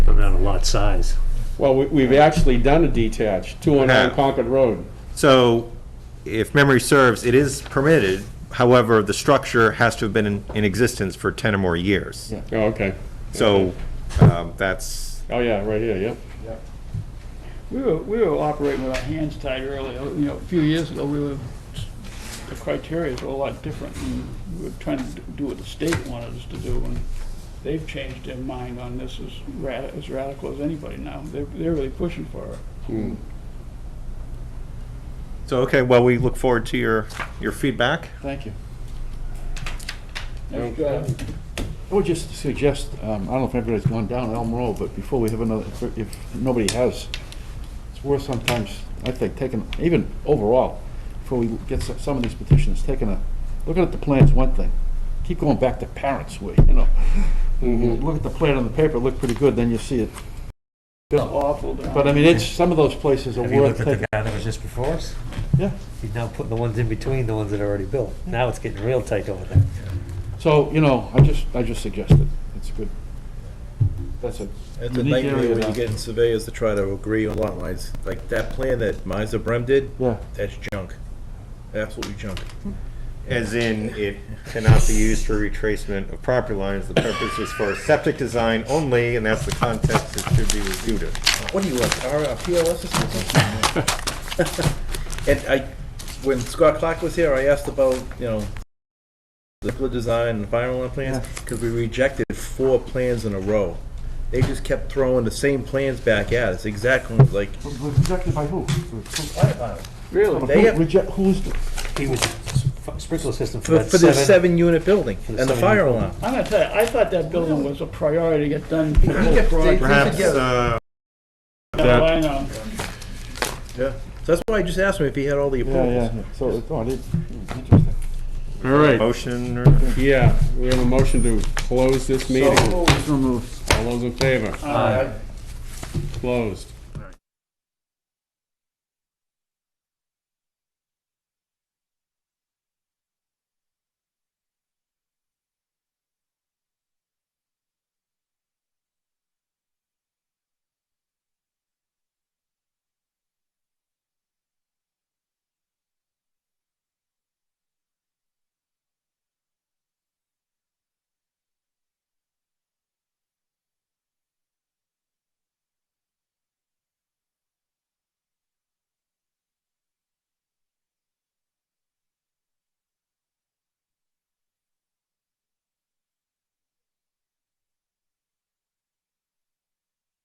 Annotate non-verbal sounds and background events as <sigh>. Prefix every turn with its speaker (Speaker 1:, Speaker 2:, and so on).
Speaker 1: lot size.
Speaker 2: Well, we- we've actually done a detached, 209
Speaker 3: Yeah.
Speaker 2: Concord Road.
Speaker 3: So, if memory serves, it is permitted, however, the structure has to have been in, in existence for 10 or more years.
Speaker 2: Oh, okay.
Speaker 3: So, um, that's,
Speaker 2: Oh, yeah, right here, yeah.
Speaker 4: We were, we were operating with our hands tied earlier, you know, a few years ago, we were, the criteria were a lot different, and we were trying to do what the state wanted us to do, and they've changed their mind on this as rad, as radical as anybody now, they're, they're really pushing for it.
Speaker 3: so, okay, well, we look forward to your, your feedback.
Speaker 5: Thank you.
Speaker 4: Nice job.
Speaker 5: I would just suggest, um, I don't know if everybody's gone down Elm Road, but before we have another, if- if nobody has, it's worth sometimes, I think, taking, even overall, before we get some- some of these petitions, taking a, looking at the plan's one thing. Keep going back to parents' way, you know. You
Speaker 2: Mm-hmm.
Speaker 5: Look at the plan on the paper, it looked pretty good, then you see it.
Speaker 4: Awful. down
Speaker 5: But I mean, it's, some of those places are
Speaker 1: Have you
Speaker 5: worth
Speaker 1: looked at
Speaker 5: taking.
Speaker 1: the guy that was just before us?
Speaker 5: Yeah.
Speaker 1: He's now putting the ones in between the ones that are already built. Now it's getting real tight over there.
Speaker 5: So, you know, I just, I just suggested, it's good. That's a
Speaker 6: It's a
Speaker 5: unique
Speaker 6: nightmare
Speaker 5: area
Speaker 6: when
Speaker 5: now.
Speaker 6: you get in surveyors to try to agree on lot lines. Like that plan that Miser Brem did,
Speaker 5: Yeah.
Speaker 6: that's junk. Absolutely junk.
Speaker 3: As in, it cannot be used for retracement of property lines. The purpose is for septic design only, and that's the context it should be reviewed in.
Speaker 6: What do you want, our uh, PLS or something? <laughs> And I, when Scott Clark was here, I asked about, you know, the flood design and fire alarm plans, because we rejected four plans in a row. They just kept throwing the same plans back at us, exactly like.
Speaker 5: Rejected by who?
Speaker 4: Really?
Speaker 6: They have-
Speaker 5: Reject, who's, the-
Speaker 1: He was f- sprinkler system for
Speaker 6: For,
Speaker 1: that
Speaker 6: for this
Speaker 1: seven.
Speaker 6: seven-unit building
Speaker 1: For
Speaker 6: and
Speaker 1: the
Speaker 6: the
Speaker 1: seven-unit
Speaker 6: fire alarm.
Speaker 4: I'm gonna tell you, I thought that building was a priority to get done for the whole
Speaker 6: Yeah, they-
Speaker 4: project.
Speaker 3: Perhaps, uh,
Speaker 4: Now I know.
Speaker 6: Yeah, so that's why I just asked him if he had all the
Speaker 5: Yeah,
Speaker 6: approvals.
Speaker 5: yeah, yeah. so, it- oh, it is, interesting.
Speaker 2: All right,
Speaker 3: motion or?
Speaker 2: yeah, we have a motion to close this meeting.
Speaker 5: So moved.
Speaker 2: All those in favor? Aye. Closed.